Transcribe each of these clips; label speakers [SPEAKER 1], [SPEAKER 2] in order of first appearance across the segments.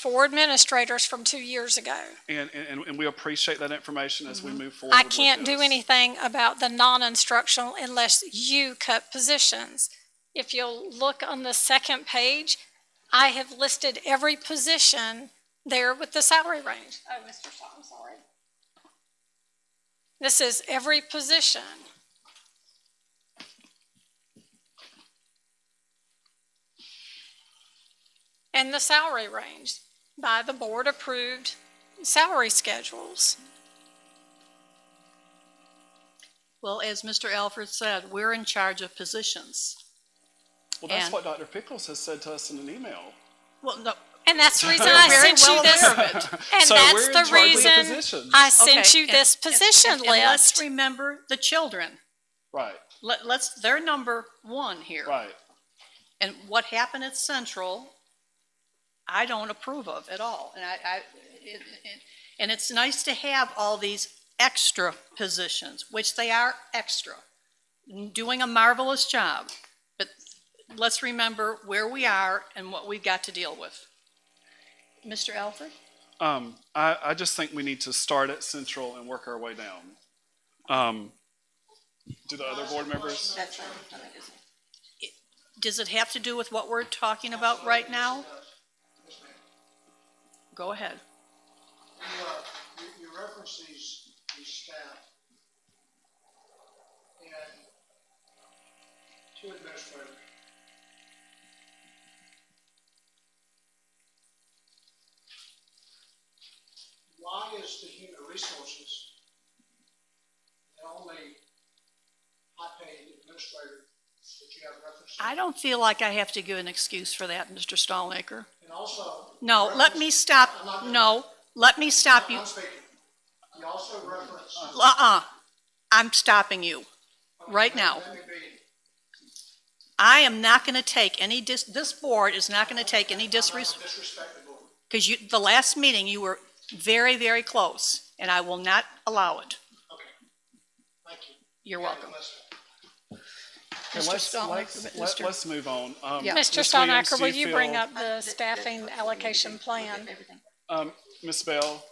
[SPEAKER 1] for administrators from two years ago.
[SPEAKER 2] And, and, and we appreciate that information as we move forward.
[SPEAKER 1] I
[SPEAKER 2] with
[SPEAKER 1] can't do
[SPEAKER 2] this.
[SPEAKER 1] anything about the non-instructional unless you cut positions. If you'll look on the second page, I have listed every position there with the salary range. Oh, Mr. Shaw, I'm sorry. This is every position. And the salary range by the board-approved salary schedules.
[SPEAKER 3] Well, as Mr. Alfred said, we're in charge of positions.
[SPEAKER 2] Well, that's
[SPEAKER 3] and-
[SPEAKER 2] what Dr. Pickles has said to us in an email.
[SPEAKER 3] Well, no,
[SPEAKER 1] And that's the reason I
[SPEAKER 3] very
[SPEAKER 1] sent
[SPEAKER 3] well
[SPEAKER 1] you this,
[SPEAKER 3] aware
[SPEAKER 1] and
[SPEAKER 3] of it.
[SPEAKER 2] So
[SPEAKER 1] that's
[SPEAKER 2] we're in
[SPEAKER 1] the
[SPEAKER 2] charge of the
[SPEAKER 1] reason
[SPEAKER 2] positions.
[SPEAKER 1] I sent
[SPEAKER 3] Okay,
[SPEAKER 1] you
[SPEAKER 3] and-
[SPEAKER 1] this
[SPEAKER 3] and-
[SPEAKER 1] position
[SPEAKER 3] and- and Let's
[SPEAKER 1] list.
[SPEAKER 3] remember the children.
[SPEAKER 2] Right,
[SPEAKER 3] Let, let's, they're number one here.
[SPEAKER 2] right.
[SPEAKER 3] And what happened at Central, I don't approve of at all. And I, I, it- it- and it's nice to have all these extra positions, which they are extra, doing a marvelous job. But let's remember where we are and what we've got to deal with. Mr. Alfred?
[SPEAKER 2] Um, I, I just think we need to start at central and work our way down. Um, do the other board members?
[SPEAKER 3] Does it have to do with what we're talking about right now? Go ahead.
[SPEAKER 4] You, uh, you, you reference these, these staff and two administrators. Why is the human resources the only high-paid administrator that you have reference to?
[SPEAKER 3] I don't feel like I have to give an excuse for that, Mr. Stallnaker.
[SPEAKER 4] And also.
[SPEAKER 3] No, let me
[SPEAKER 4] reference- I'm not
[SPEAKER 3] stop,
[SPEAKER 4] gonna-
[SPEAKER 3] no, let me stop you.
[SPEAKER 4] I'm speaking. You also reference.
[SPEAKER 3] Uh-uh, I'm stopping you right now.
[SPEAKER 4] Let me be-
[SPEAKER 3] I am not going to take any dis, this board is not going to take any disres,
[SPEAKER 4] disrespectful.
[SPEAKER 3] because you, the last meeting, you were very, very close, and I will not allow it.
[SPEAKER 4] Okay. Thank you.
[SPEAKER 3] You're welcome.
[SPEAKER 2] Okay,
[SPEAKER 3] Mr.
[SPEAKER 2] let's-
[SPEAKER 3] Stallnaker,
[SPEAKER 2] let's- let-
[SPEAKER 3] Mr.
[SPEAKER 2] Let's move on. Um,
[SPEAKER 3] Yeah.
[SPEAKER 1] Mr.
[SPEAKER 2] Ms. Williams,
[SPEAKER 1] Stonacker,
[SPEAKER 2] do
[SPEAKER 1] will you bring
[SPEAKER 2] feel-
[SPEAKER 1] up the staffing allocation plan?
[SPEAKER 2] Um, Ms. Bell,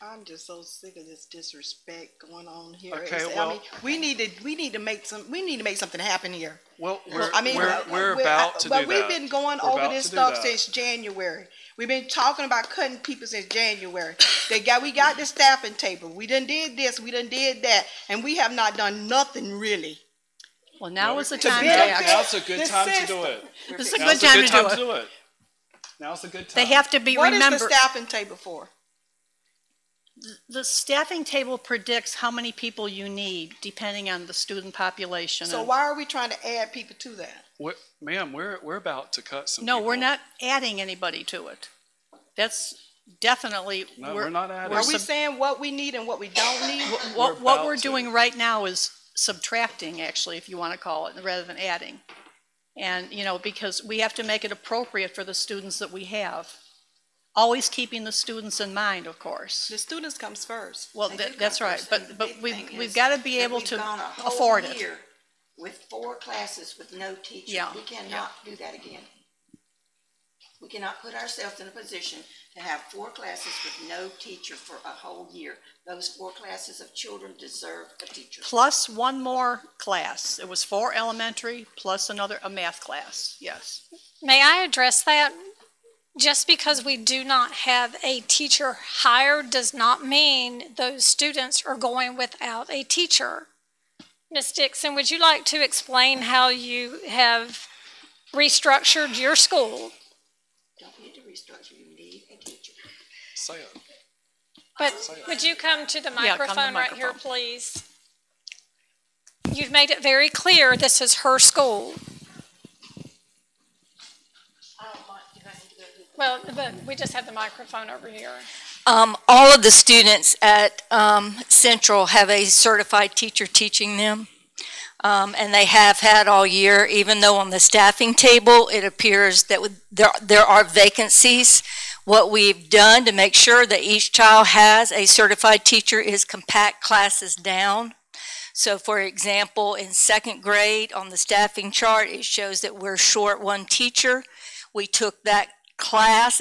[SPEAKER 5] I'm just so sick of this disrespect going on here.
[SPEAKER 2] Okay,
[SPEAKER 5] It's-
[SPEAKER 2] well-
[SPEAKER 5] I mean, we need to we need to make some we need to make something happen here.
[SPEAKER 2] well,
[SPEAKER 5] Well,
[SPEAKER 2] we're,
[SPEAKER 5] I mean,
[SPEAKER 2] we're,
[SPEAKER 5] uh,
[SPEAKER 2] we're about to do
[SPEAKER 5] But
[SPEAKER 2] that.
[SPEAKER 5] we've been going
[SPEAKER 2] We're
[SPEAKER 5] over
[SPEAKER 2] about
[SPEAKER 5] this
[SPEAKER 2] to do
[SPEAKER 5] stuff
[SPEAKER 2] that.
[SPEAKER 5] since January. We've been talking about cutting people since January. They got we got the staffing table. We done did this. We done did that, and we have not done nothing really.
[SPEAKER 3] Well, now is the
[SPEAKER 5] To
[SPEAKER 3] time to
[SPEAKER 5] benefit
[SPEAKER 3] act.
[SPEAKER 2] Now's a good
[SPEAKER 5] the
[SPEAKER 2] time to do
[SPEAKER 5] system.
[SPEAKER 2] it.
[SPEAKER 3] This is a
[SPEAKER 2] Now's
[SPEAKER 3] good time to do
[SPEAKER 2] to
[SPEAKER 3] it.
[SPEAKER 2] do it. Now's a good time.
[SPEAKER 3] They have to be
[SPEAKER 5] What is
[SPEAKER 3] remembered.
[SPEAKER 5] the staffing table for?
[SPEAKER 3] The staffing table predicts how many people you need, depending on the student population.
[SPEAKER 5] So
[SPEAKER 3] and-
[SPEAKER 5] why are we trying to add people to that?
[SPEAKER 2] What, ma'am, we're, we're about to cut some.
[SPEAKER 3] No, we're
[SPEAKER 2] people.
[SPEAKER 3] not adding anybody to it. That's definitely.
[SPEAKER 2] No, we're not adding.
[SPEAKER 3] we're
[SPEAKER 5] Are we
[SPEAKER 3] sub-
[SPEAKER 5] saying what we need and what we don't need?
[SPEAKER 3] What,
[SPEAKER 2] We're
[SPEAKER 3] what
[SPEAKER 2] about
[SPEAKER 3] we're
[SPEAKER 2] to.
[SPEAKER 3] doing right now is subtracting, actually, if you want to call it, rather than adding. And, you know, because we have to make it appropriate for the students that we have. Always keeping the students in mind, of course.
[SPEAKER 5] The students comes first.
[SPEAKER 3] Well,
[SPEAKER 6] They
[SPEAKER 3] tha-
[SPEAKER 6] do
[SPEAKER 3] that's
[SPEAKER 6] come
[SPEAKER 3] right,
[SPEAKER 6] first, and the
[SPEAKER 3] but, but
[SPEAKER 6] big
[SPEAKER 3] we,
[SPEAKER 6] thing
[SPEAKER 3] we've
[SPEAKER 6] is
[SPEAKER 3] got to be
[SPEAKER 6] that
[SPEAKER 3] able
[SPEAKER 6] we've
[SPEAKER 3] to
[SPEAKER 6] gone a whole
[SPEAKER 3] afford it.
[SPEAKER 6] year With four classes with no teacher.
[SPEAKER 3] Yeah,
[SPEAKER 6] We cannot do that again. We cannot put ourselves in a position to have four classes with no teacher for a whole year. Those four classes of children deserve a teacher.
[SPEAKER 3] Plus one more class. It was four elementary, plus another, a math class, yes.
[SPEAKER 1] May I address that? Just because we do not have a teacher hired does not mean those students are going without a teacher. Ms. Dixon, would you like to explain how you have restructured your school?
[SPEAKER 6] Don't need to restructure, you need a teacher.
[SPEAKER 2] Say it.
[SPEAKER 1] But would you come to the
[SPEAKER 3] Yeah, come to the
[SPEAKER 1] microphone right here,
[SPEAKER 3] microphone.
[SPEAKER 1] please? You've made it very clear this is her school. Well, but we just have the microphone over here.
[SPEAKER 7] Um, all of the students at, um, Central have a certified teacher teaching them. Um, and they have had all year, even though on the staffing table, it appears that with- there, there are vacancies. What we've done to make sure that each child has a certified teacher is compact classes down. So for example, in second grade, on the staffing chart, it shows that we're short one teacher. We took that class